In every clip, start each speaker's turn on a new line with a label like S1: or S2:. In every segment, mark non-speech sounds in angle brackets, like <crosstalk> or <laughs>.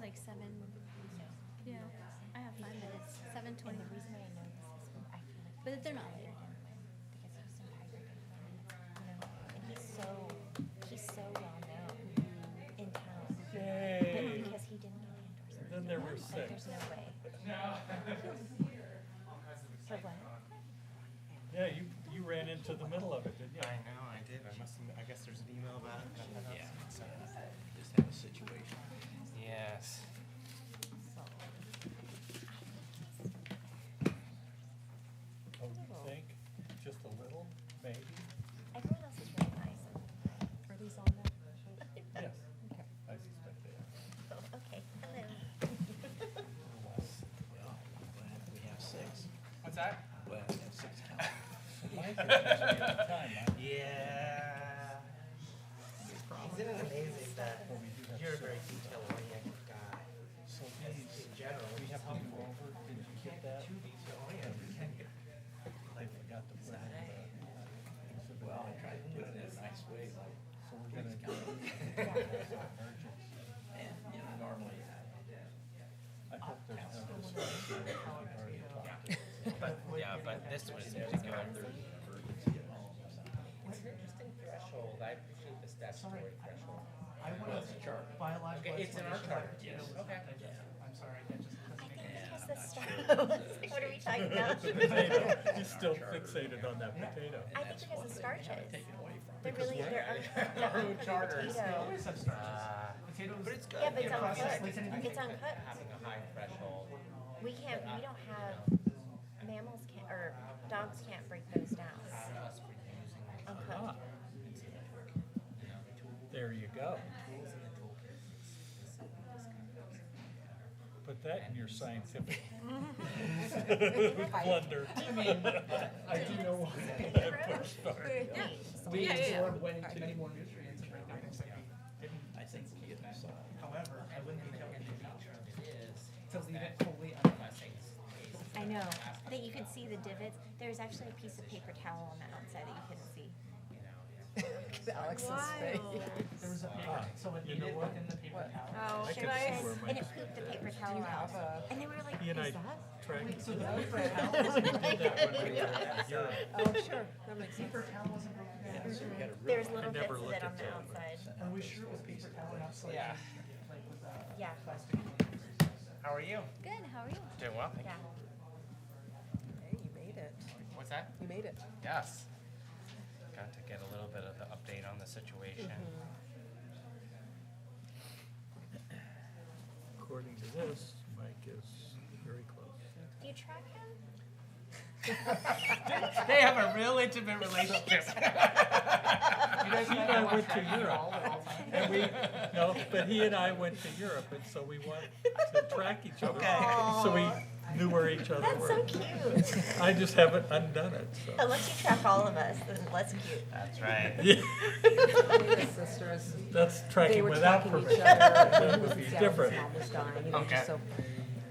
S1: like seven. Yeah, I have five minutes. Seven
S2: And the
S1: twenty-three.
S2: reason that I know this is when I feel like.
S1: But they're
S2: I
S1: not late.
S2: read him when- Because he's so high rated, you know, and he's so, he's so well known in town. But
S3: Yay.
S2: because he didn't get the endorsement.
S3: Then there were
S2: Like,
S3: six.
S2: there's no way. For what?
S3: Yeah, you, you ran into the middle of it, didn't
S4: I
S3: you?
S4: know, I did. I must. I guess there's an email about it.
S5: Yeah.
S4: So-
S5: Just have a situation.
S4: Yes.
S3: Oh, you think? Just a little, maybe?
S2: Everyone else is really nice. Are these on there?
S3: Yes. I suspect <laughs> they
S2: Oh, Okay, hello.
S5: Well, we'll have, we have six.
S4: What's that?
S5: Well, we have six now.
S3: are. Time, huh?
S4: Yeah. Isn't it amazing that
S3: Well, we do have
S4: you're a
S3: six.
S4: very detail oriented guy?
S3: So
S4: As
S3: these,
S4: in general,
S3: we have to move over, did you get that?
S4: too detail oriented. Can you?
S3: I forgot to put it in the exhibit.
S5: Well, I tried to do it in a nice way, like,
S3: uh, So we're gonna do emergency.
S5: and, you know, normally,
S3: I hope there's no discussion. We've already talked.
S4: But
S5: yeah, but this was in particular.
S4: it's an interesting threshold. I appreciate the statutory threshold.
S6: I want
S5: Well, it's a charter.
S6: biological.
S4: Okay, it's in our
S6: explanation.
S4: charter.
S5: Yes.
S4: Okay.
S6: I'm sorry, that just
S2: I
S6: doesn't make
S2: think
S6: any
S2: because
S5: I'm
S2: the
S5: not
S2: stuff,
S5: sure.
S2: <laughs> what are we talking about?
S3: <laughs> Potato.
S2: I
S3: He's still fixated on that potato.
S2: think because of starches.
S5: Taken away from.
S2: There really, there are.
S3: <laughs>
S4: Our
S2: <laughs>
S4: own charter
S6: sense.
S4: is
S6: They
S2: potato.
S6: always have starches.
S4: Ah.
S6: Potatoes.
S4: But it's good.
S2: Yeah, but it's
S4: you know,
S2: uncooked.
S4: like- I
S2: It's
S4: think that
S2: uncooked.
S4: Having a high threshold.
S2: We can't, we don't have, mammals can't, or dogs can't break those down.
S4: Plus, we're using
S2: Uncooked.
S3: There you go. Put that in your scientific <laughs> blender. I do know why <laughs> I pushed hard.
S2: Yeah.
S6: We
S7: Yeah, yeah, yeah.
S6: absorb way too many more nutrients and break down things that we didn't.
S5: I think we get this, uh,
S6: However, I wouldn't be healthy to leave it fully.
S2: I know, that you could see the divots. There's actually a piece of paper towel on the outside that you couldn't see.
S7: Alex's
S6: There was a paper,
S3: Ah,
S6: so it
S3: you know
S6: needed
S3: what?
S6: within the paper towel.
S7: Oh,
S3: I
S7: should
S3: can
S7: I?
S3: see where my.
S2: And it pooped the paper towel out. And they were like,
S3: <laughs> He and I
S2: is that?
S3: tried to
S6: Wait, so
S3: do
S6: the
S3: <laughs> that.
S6: paper towel,
S3: We did that when we were in Europe.
S7: Oh, sure, that makes sense.
S6: paper towel wasn't broken
S5: yeah,
S6: down.
S5: so we
S2: There
S5: gotta
S2: was
S5: realize-
S2: little bits
S3: never
S2: of
S3: look
S2: it
S3: at
S2: on the
S3: that one.
S2: outside.
S6: Are we sure it was paper towel, not like,
S4: Yeah.
S6: like with a
S2: Yeah,
S6: plastic?
S4: How are you?
S1: Good, how are you?
S4: Doing well.
S2: yeah.
S7: Hey, you made it.
S4: What's that?
S7: You made it.
S4: Yes. Got to get a little bit of the update on the situation.
S3: According to this, Mike is very close.
S2: Do you track him?
S6: <laughs>
S4: They have a real intimate <laughs> relationship.
S6: You guys
S3: He
S6: might
S3: and I
S6: not
S3: went to
S6: track it
S3: Europe.
S6: all at all times.
S3: And we, no, but he and I went to Europe, and so we want to track each other.
S4: Okay.
S3: So we knew where each other
S2: That's
S3: were.
S2: so cute.
S3: I just haven't undone it, so. <laughs>
S2: Unless you track all of us, then that's cute.
S4: That's right.
S3: Yeah,
S7: His <laughs> sisters.
S3: That's
S7: They
S3: tracking
S7: were
S3: without
S7: tracking each
S3: permission.
S7: other.
S3: That
S7: and
S3: would be
S7: Dallas'
S3: different.
S7: mom was dying, and it was just
S4: Okay.
S7: so-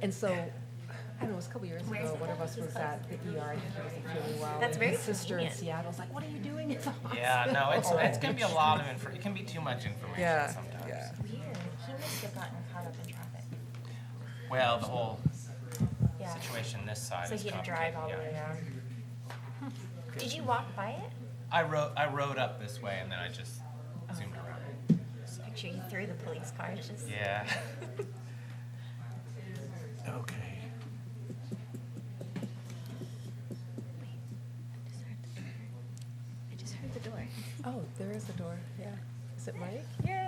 S7: And so, I don't know, it was a couple years ago, one of us was at the ER, and he wasn't feeling well.
S2: That's
S7: and
S2: very
S7: His sister in
S2: convenient.
S7: Seattle's like, what are you doing? It's a hospital.
S4: Yeah, no, it's it's gonna be a lot of info. It can be too much information
S7: Yeah,
S4: sometimes.
S7: yeah.
S2: Weird. He must have gotten caught up in traffic.
S4: Well, the whole
S2: Yeah.
S4: situation this side
S2: So
S4: is
S2: he had to drive
S4: complicated,
S2: all the
S4: yeah.
S2: way around. Did you walk by it?
S4: I rode I rode up this way and then I just
S2: Oh,
S4: zoomed around.
S2: Picture you through the police car. It's just
S4: Yeah. <laughs>
S3: Okay.
S1: I just heard the door.
S7: Oh, there is a door, yeah. Is it Mike? Yeah.
S2: Oh.